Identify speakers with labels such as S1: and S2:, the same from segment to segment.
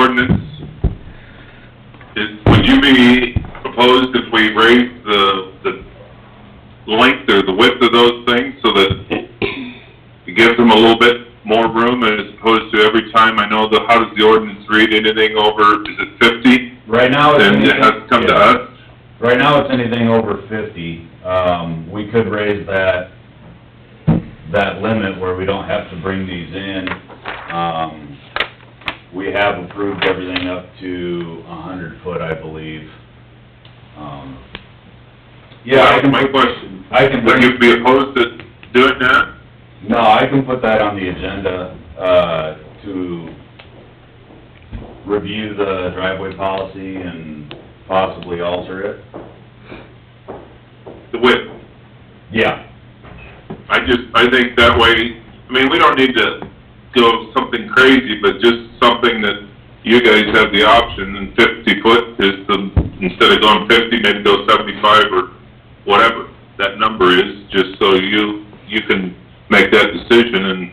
S1: ordinance, is, would you be opposed if we raised the, the length or the width of those things so that it gives them a little bit more room as opposed to every time, I know the, how does the ordinance read, anything over, is it fifty?
S2: Right now, it's
S1: Then
S2: anything...
S1: it has to come to us?
S2: Right now, it's anything over fifty. Um, we could raise that, that limit where we don't have to bring these in. Um, we have approved everything up to a hundred foot, I believe. Um, Yeah, I can,
S1: That's My question,
S2: I can
S1: would
S2: bring,
S1: you be opposed to doing that?
S2: no, I can put that on the agenda, uh, to review the driveway policy and possibly alter it.
S1: The width?
S2: Yeah,
S1: I just, I think that way, I mean, we don't need to go something crazy, but just something that you guys have the option, and fifty foot is the, instead of going fifty, maybe go seventy-five or whatever that number is, just so you, you can make that decision and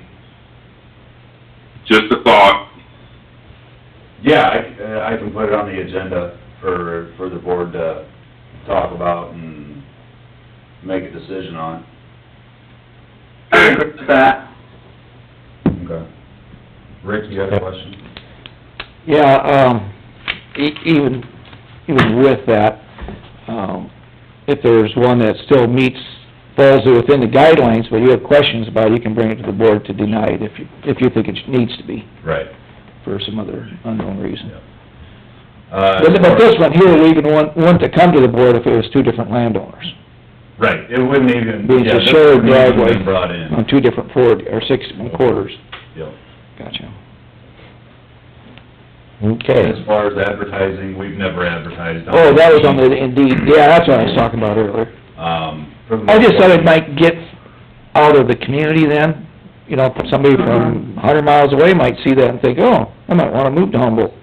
S1: just a thought,
S2: Yeah, I, c- uh, I can put it on the agenda for, for the board to talk about and make a decision on.
S3: I agree with that.
S2: Okay. Rick, you have a question?
S3: Yeah, um, e- even, even with that, um, if there's one that still meets, falls within the guidelines, but you have questions about, it, you can bring it to the board to deny it if you, if you think it needs to be
S2: Right,
S3: for some other unknown reason.
S2: yeah. Uh,
S3: But but this one here, we even want, want to come to the board if it was two different landowners,
S2: Right, it wouldn't even,
S3: Being
S2: yeah,
S3: a
S2: this
S3: shared
S2: wouldn't even
S3: driveway.
S2: been brought in.
S3: on two different four, or six and quarters.
S2: Yep.
S3: Gotcha.
S2: As
S3: Okay.
S2: far as advertising, we've never advertised on.
S3: Oh, that was on the Indeed, yeah, that's what I was talking about earlier.
S2: Um. for the
S3: I just thought it
S2: most part-
S3: might get out of the community then, you know, somebody
S2: Mm-hmm.
S3: from a hundred miles away might see that and think, oh, I might wanna move to Humboldt.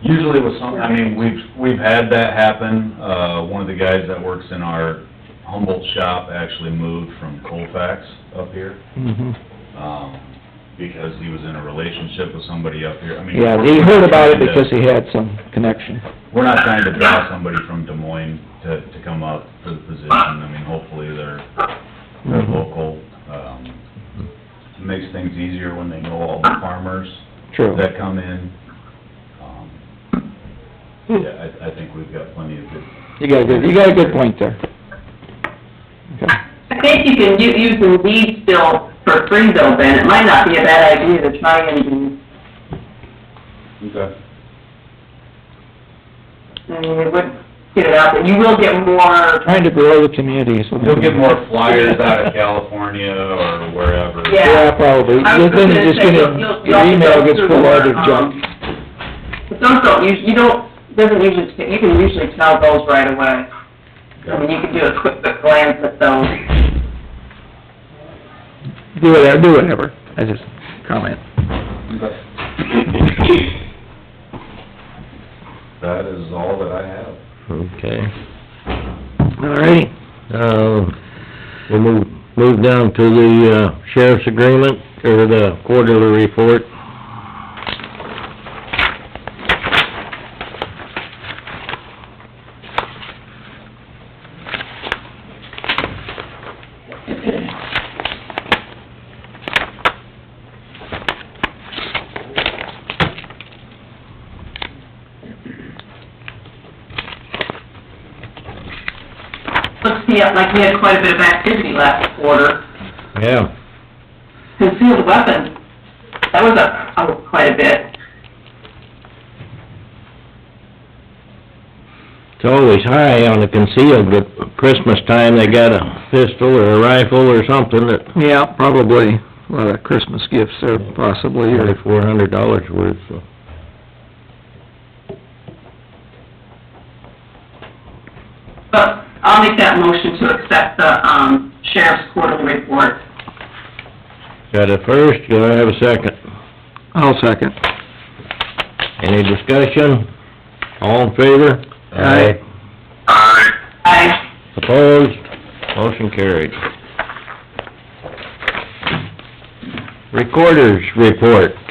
S2: Usually with some, I mean, we've, we've had that happen. Uh, one of the guys that works in our Humboldt shop actually moved from Colfax up here, um, because he was in a relationship with somebody up here. I mean.
S3: Yeah,
S2: we're-
S3: he heard about it
S2: we're
S3: because
S2: trying to-
S3: he had some connection.
S2: We're not trying to draw somebody from Des Moines to, to come up for the position. I mean, hopefully they're, they're
S3: Mhm.
S2: local. Um, it makes things easier when they know all the farmers
S3: True.
S2: that come in. Um, Yeah, I, I think we've got plenty of good
S3: You got a good, you got a good point there. Okay.
S4: I think you can u- use Indeed still for free though, Ben, it might not be a bad idea to try Indeed.
S2: Okay.
S4: I mean, it would get it out, but you will get more,
S3: Trying to grow the community, so.
S2: You'll get more flyers out of California or wherever.
S4: Yeah.
S3: Yeah, probably.
S4: I was
S3: Then
S4: gonna
S3: it's just
S4: say,
S3: gonna, your
S4: you'll- you'll-
S3: email gets
S4: you'll-
S3: full out of
S4: um,
S3: junk.
S4: but those don't usually, you don't, doesn't usually, you can usually tell those right away. I mean, you can do a quick glance at those. um,
S3: Do whatever, do whatever. I just comment.
S2: That is all that I have.
S5: Okay,
S3: All righty.
S5: uh, we'll move, move down to the uh, sheriff's agreement, or the quarterly report.
S4: Looks to me like we had quite a bit of activity last quarter.
S5: Yeah,
S4: Concealed weapons, that was up, up quite a bit.
S5: it's always high on the concealed, but Christmas time, they got a pistol or a rifle or something that,
S3: Yeah, probably. A lot of Christmas gifts there possibly, or,
S5: four hundred dollars worth, so.
S4: But I'll make that motion to accept the, um, sheriff's quarterly report.
S5: Got a first, do I have a second?
S3: I'll second.
S5: Any discussion? All in favor?
S3: Aye.
S4: I,
S5: Opposed? Motion carried. Recorder's report.